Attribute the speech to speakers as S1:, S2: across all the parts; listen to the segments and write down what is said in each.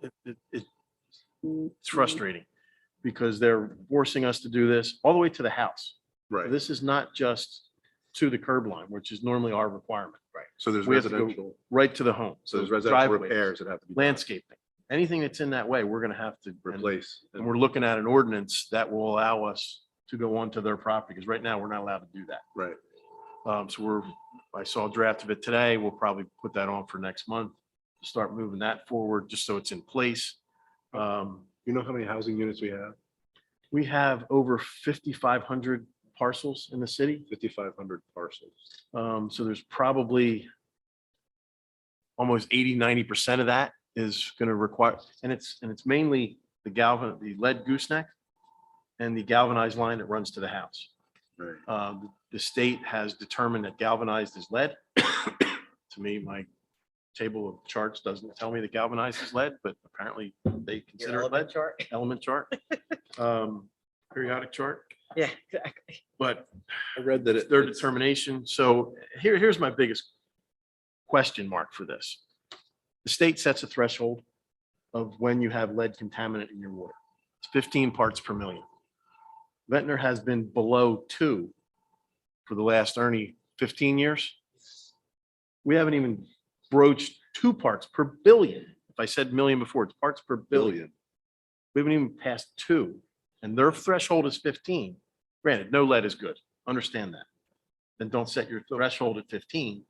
S1: it- it- it- it's frustrating because they're forcing us to do this all the way to the house.
S2: Right,
S1: This is not just to the curb line, which is normally our requirement,
S2: so there's
S1: we have to go-
S2: residential,
S1: right to the home.
S2: so there's residential
S1: driveways,
S2: repairs that have to be. done,
S1: Landscaping, anything that's in that way, we're going to have to. and-
S2: Replace.
S1: And we're looking at an ordinance that will allow us to go onto their property, because right now, we're not allowed to do that.
S2: Right,
S1: Um, so we're, I saw a draft of it today. We'll probably put that on for next month. to Start moving that forward, just so it's in place. Um,
S2: you know how many housing units we have?
S1: we have over fifty-five hundred parcels in the city.
S2: Fifty-five hundred parcels.
S1: Um, so there's probably almost 80, 90 percent of that is gonna require, and it's, and it's mainly the galvan, the lead gooseneck and the galvanized line that runs to the house.
S2: Right.
S1: Um, the state has determined that galvanized is lead. To me, my table of charts doesn't tell me that galvanized is lead, but apparently they
S3: Your
S1: consider it
S3: element
S1: lead,
S3: chart?
S1: element chart. um, Periodic chart,
S3: Yeah, exactly.
S1: but
S2: I read that
S1: that it's
S2: it,
S1: their determination. So here, here's my biggest question mark for this. The state sets a threshold of when you have lead contaminant in your water. It's fifteen parts per million. Ventnor has been below two for the last, Ernie, fifteen years. We haven't even broached two parts per billion. If I said million before, it's parts per billion. We haven't even passed two, and their threshold is fifteen. Granted, no lead is good. Understand that. Then don't set your threshold at fifteen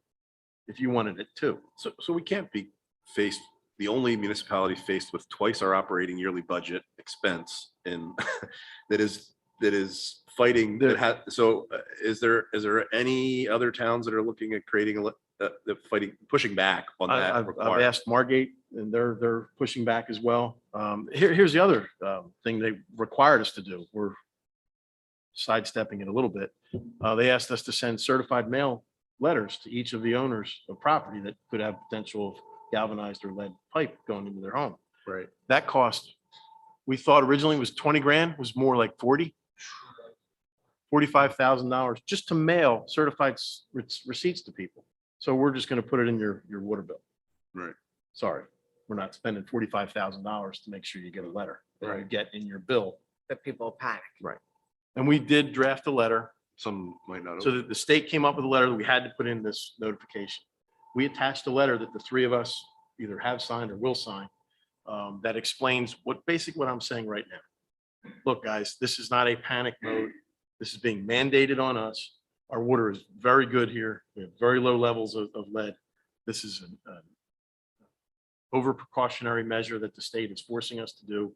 S1: if you wanted it two.
S2: so, so we can't be faced, the only municipality faced with twice our operating yearly budget expense in, that is, that is fighting,
S1: There-
S2: that had, so uh, is there, is there any other towns that are looking at creating a, le- uh, that fighting, pushing back on
S1: I-
S2: that?
S1: I've, I've
S2: requirement?
S1: asked Margate and they're, they're pushing back as well. Um, here, here's the other, um, thing they required us to do. We're sidestepping it a little bit. Uh, they asked us to send certified mail letters to each of the owners of property that could have potential of galvanized or lead pipe going into their home.
S2: Right,
S1: That cost, we thought originally was twenty grand, was more like forty. Forty-five thousand dollars just to mail certified s- re- receipts to people. So we're just gonna put it in your, your water bill.
S2: Right.
S1: Sorry, we're not spending forty-five thousand dollars to make sure you get a letter that you
S2: Right.
S1: get in your bill.
S3: The people panic.
S1: And we did draft a letter
S2: some might not.
S1: so that the state came up with a letter that we had to put in this notification. We attached a letter that the three of us either have signed or will sign um, that explains what, basically what I'm saying right now. Look, guys, this is not a panic mode. This is being mandated on us. Our water is very good here. We have very low levels of, of lead. This is an an over precautionary measure that the state is forcing us to do.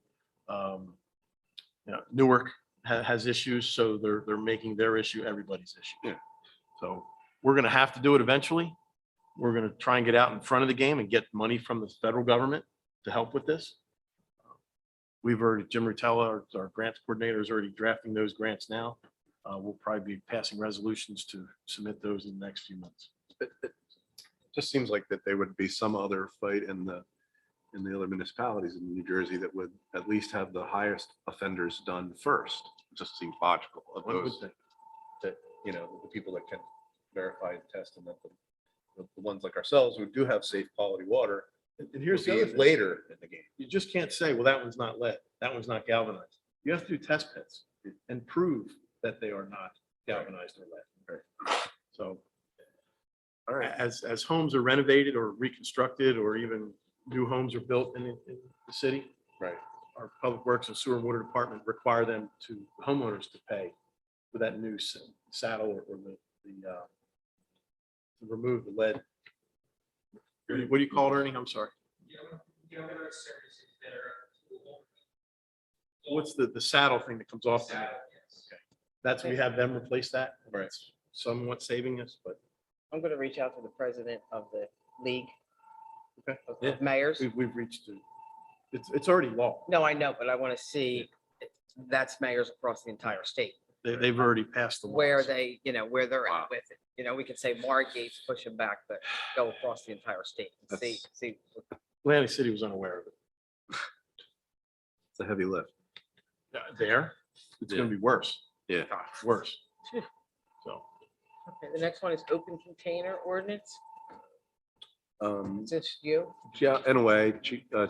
S1: Um, You know, Newark ha- has issues, so they're, they're making their issue everybody's issue.
S2: Yeah.
S1: So we're gonna have to do it eventually. We're gonna try and get out in front of the game and get money from the federal government to help with this. We've already, Jim Rutella, our, our grants coordinator is already drafting those grants now. Uh, we'll probably be passing resolutions to submit those in the next few months.
S2: just seems like that there would be some other fight in the, in the other municipalities in New Jersey that would at least have the highest offenders done first. It Just seems logical of
S1: One would
S2: those,
S1: think.
S2: you know, the people that can verify and test and that the, the- the ones like ourselves who do have safe quality water.
S1: And and here's the
S2: will be
S1: other thing.
S2: Later in the game.
S1: You just can't say, well, that one's not lead, that one's not galvanized. You have to do test pits and prove that they are not galvanized or lead. So. All right, as, as homes are renovated or reconstructed, or even new homes are built in, in the city,
S2: Right.
S1: our public works and sewer and water department require them to homeowners to pay for that new s- saddle or or the, the, uh, to remove the lead. What do you- what do you call it, Ernie? I'm sorry. What's the, the saddle thing that comes off? the- That's, we have them replace that.
S2: Right.
S1: It's Somewhat saving us, but
S3: I'm gonna reach out to the president of the league.
S1: Okay.
S3: of- of
S1: Yeah.
S3: Mayors.
S1: we've, we've reached, a- it's, it's already law.
S3: No, I know, but I want to see, that's mayors across the entire state,
S1: They, they've already passed the. law,
S3: where
S1: so-
S3: they, you know, where they're
S2: Wow.
S3: at with it. You know, we could say Margate's pushing back, but go across the entire state and see,
S2: That's-
S3: see.
S1: Atlantic City was unaware of it.
S2: It's a heavy lift.
S1: Uh, There, it's gonna be worse.
S2: Yeah.
S1: God, Worse. So.
S3: Okay, The next one is open container ordinance.
S2: Um,
S3: Is this you?
S2: yeah, in a way, Chi- uh,